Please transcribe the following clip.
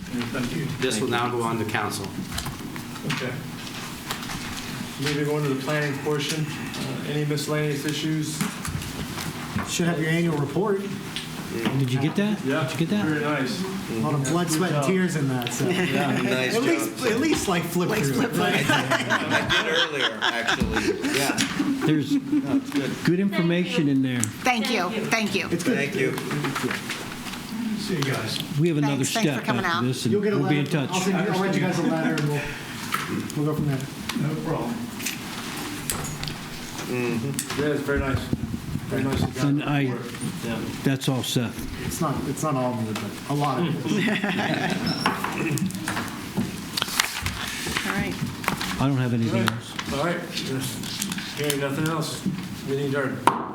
Mm, Thank you. This will now go on to council. Okay. Moving on to the planning portion, uh, any miscellaneous issues? Should have your annual report. Did you get that? Did you get that? Very nice. A lot of blood, sweat, and tears in that. So. Nice At job. least, at least like flip through. it, right? I did earlier, actually. Yeah, There's no, it's good. good information in there. Thank you, thank you. Thank you. See you guys. We have another Thanks- thanks for step coming out. after this, and You'll get a we'll letter. be in touch. I'll, send you, I'll write you guys a letter, and we'll we'll go from there. No problem. Yeah, it's very nice. Very nice. of you guys. And I- That's all, Seth. It's not it's not all of it, but a lot of it. All right. I don't have anything else. All right, Yes. hearing nothing else, meeting adjourned.